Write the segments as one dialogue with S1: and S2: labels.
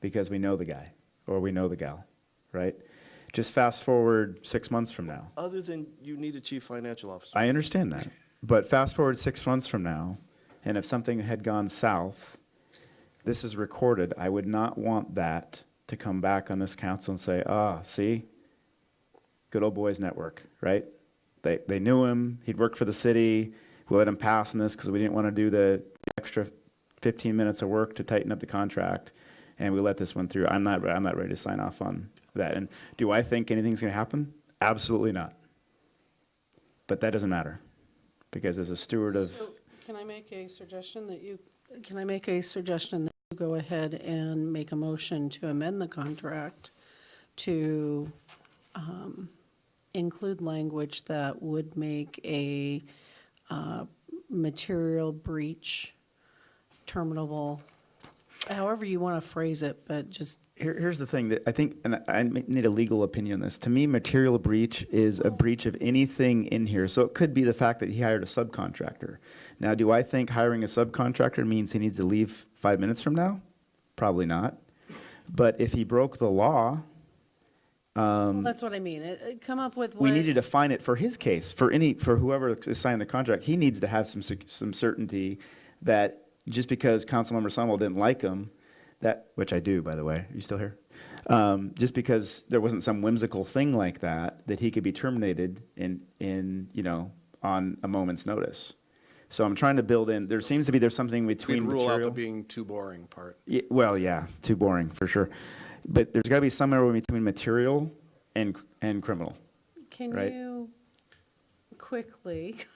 S1: because we know the guy or we know the gal, right? Just fast forward six months from now.
S2: Other than you need a chief financial officer.
S1: I understand that. But fast forward six months from now, and if something had gone south, this is recorded. I would not want that to come back on this council and say, ah, see, good old boys network, right? They, they knew him. He'd worked for the city. We let him pass on this because we didn't want to do the extra 15 minutes of work to tighten up the contract. And we let this one through. I'm not, I'm not ready to sign off on that. And do I think anything's going to happen? Absolutely not. But that doesn't matter because as a steward of,
S3: So, Can I make a suggestion that you, can I make a suggestion that you go ahead and make a motion to amend the contract to um, include language that would make a uh, material breach terminable, however you want to phrase it, but just,
S1: here, here's the thing that I think, and I- I may need a legal opinion on this. To me, material breach is a breach of anything in here. So it could be the fact that he hired a subcontractor. Now, do I think hiring a subcontractor means he needs to leave five minutes from now? Probably not. But if he broke the law,
S3: that's what I mean. It- it- Come up with what.
S1: Um, we need to define it for his case, for any, for whoever is signing the contract. He needs to have some, sec- some certainty that just because Councilmember Sunwell didn't like him, that, which I do, by the way, you still here? Um, just because there wasn't some whimsical thing like that, that he could be terminated in, in, you know, on a moment's notice. So I'm trying to build in, there seems to be, there's something
S4: We'd
S1: between
S4: rule out the
S1: material.
S4: being too boring part.
S1: Ye- well, yeah, too boring, for sure. But there's gotta be somewhere between material and, and criminal.
S3: Can
S1: right?
S3: you quickly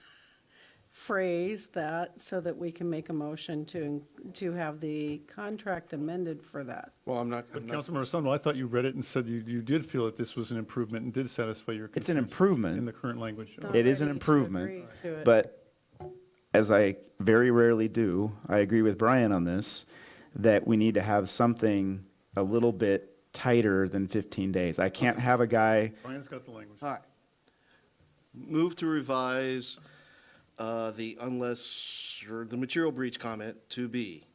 S3: phrase that so that we can make a motion to, to have the contract amended for that?
S4: Well, I'm not, I'm
S5: But
S4: not,
S5: Councilmember Sundell, I thought you read it and said you, you did feel that this was an improvement and did satisfy your
S1: It's an
S5: concerns
S1: improvement.
S5: In the current language.
S3: Not
S1: It is an
S3: ready to
S1: improvement,
S3: agree to it.
S1: but as I very rarely do, I agree with Brian on this, that we need to have something a little bit tighter than 15 days. I can't have a guy,
S5: Brian's Oh, got the language.
S2: All right. Move to revise uh, the unless, or the material breach comment to be.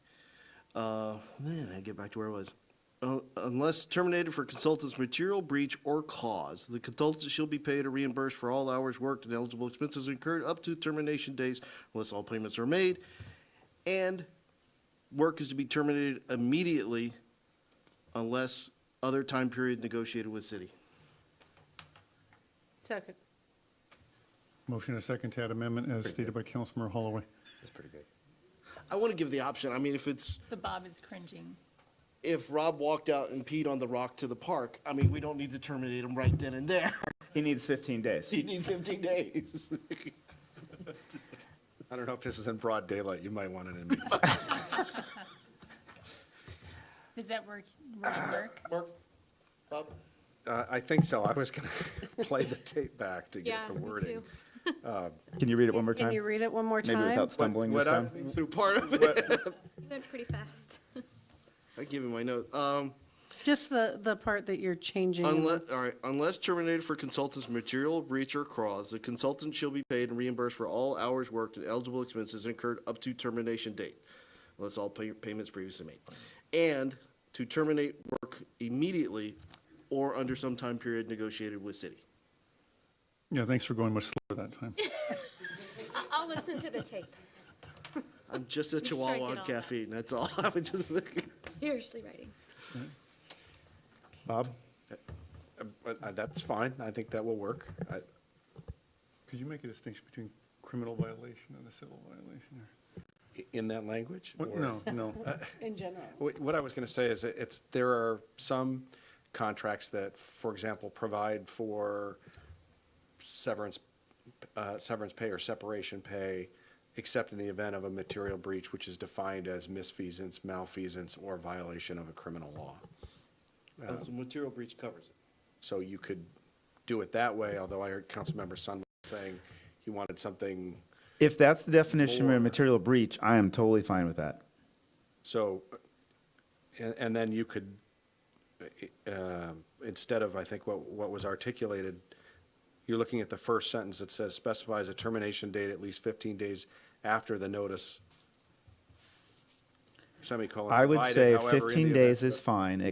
S2: uh, Man, I get back to where I was. Uh, Unless terminated for consultant's material breach or cause, the consultant shall be paid or reimbursed for all hours worked and eligible expenses incurred up to termination days unless all payments are made. And work is to be terminated immediately unless other time period negotiated with city.
S3: Second.
S5: Motion and a second to add amendment as stated by Councilmember Holloway.
S2: I want to give the option. I mean, if it's,
S6: The Bob is cringing.
S2: if Rob walked out and peed on the rock to the park, I mean, we don't need to terminate him right then and there.
S1: he needs 15 days.
S2: You need 15 days.
S4: I don't know if this is in broad daylight, you might want it in.
S6: Does that work, would it work?
S2: Mark, Bob,
S4: Uh, I think so, I was gonna play the tape back to get
S7: Yeah,
S4: the
S7: me
S4: wording.
S7: too.
S1: Can you read it one more
S3: Can you
S1: time?
S3: read it one more time?
S1: Maybe without stumbling this
S4: What I-
S1: time?
S2: through part of it.
S4: what-
S7: Went pretty fast.
S2: I give you my note. Um,
S3: Just the, the part that you're changing. in the-
S2: Unless, all right, unless terminated for consultant's material breach or cause, the consultant shall be paid and reimbursed for all hours worked and eligible expenses incurred up to termination date, unless all pay- payments previously made. And to terminate work immediately or under some time period negotiated with city.
S5: Yeah, thanks for going much slower that time.
S7: I- I'll listen to the tape.
S2: I'm just a
S7: Just strike
S2: chihuahua
S7: it
S2: on
S7: all out.
S2: caffeine, that's all. I would just,
S7: Furiously writing.
S1: Bob?
S4: but, uh, That's fine, I think that will work. uh, I-
S5: Could you make a distinction between criminal violation and a civil violation?
S4: i- In that language?
S5: What,
S4: or-
S5: no, no. Uh,
S3: In general.
S4: Wh- What I was going to say is that it's, there are some contracts that, for example, provide for severance, uh, severance pay or separation pay, except in the event of a material breach, which is defined as misfeasance, malfeasance, or violation of a criminal law.
S2: so material breach covers it.
S4: So you could do it that way, although I heard Councilmember Sun saying he wanted something,
S1: If that's the definition of a material breach, I am totally fine with that.
S4: so, and, and then you could, uh, instead of, I think, what, what was articulated, you're looking at the first sentence that says specifies a termination date at least 15 days after the notice semicolon.
S1: I would
S4: provided,
S1: say
S4: however, in the
S1: 15
S4: event
S1: days
S4: that-
S1: is fine,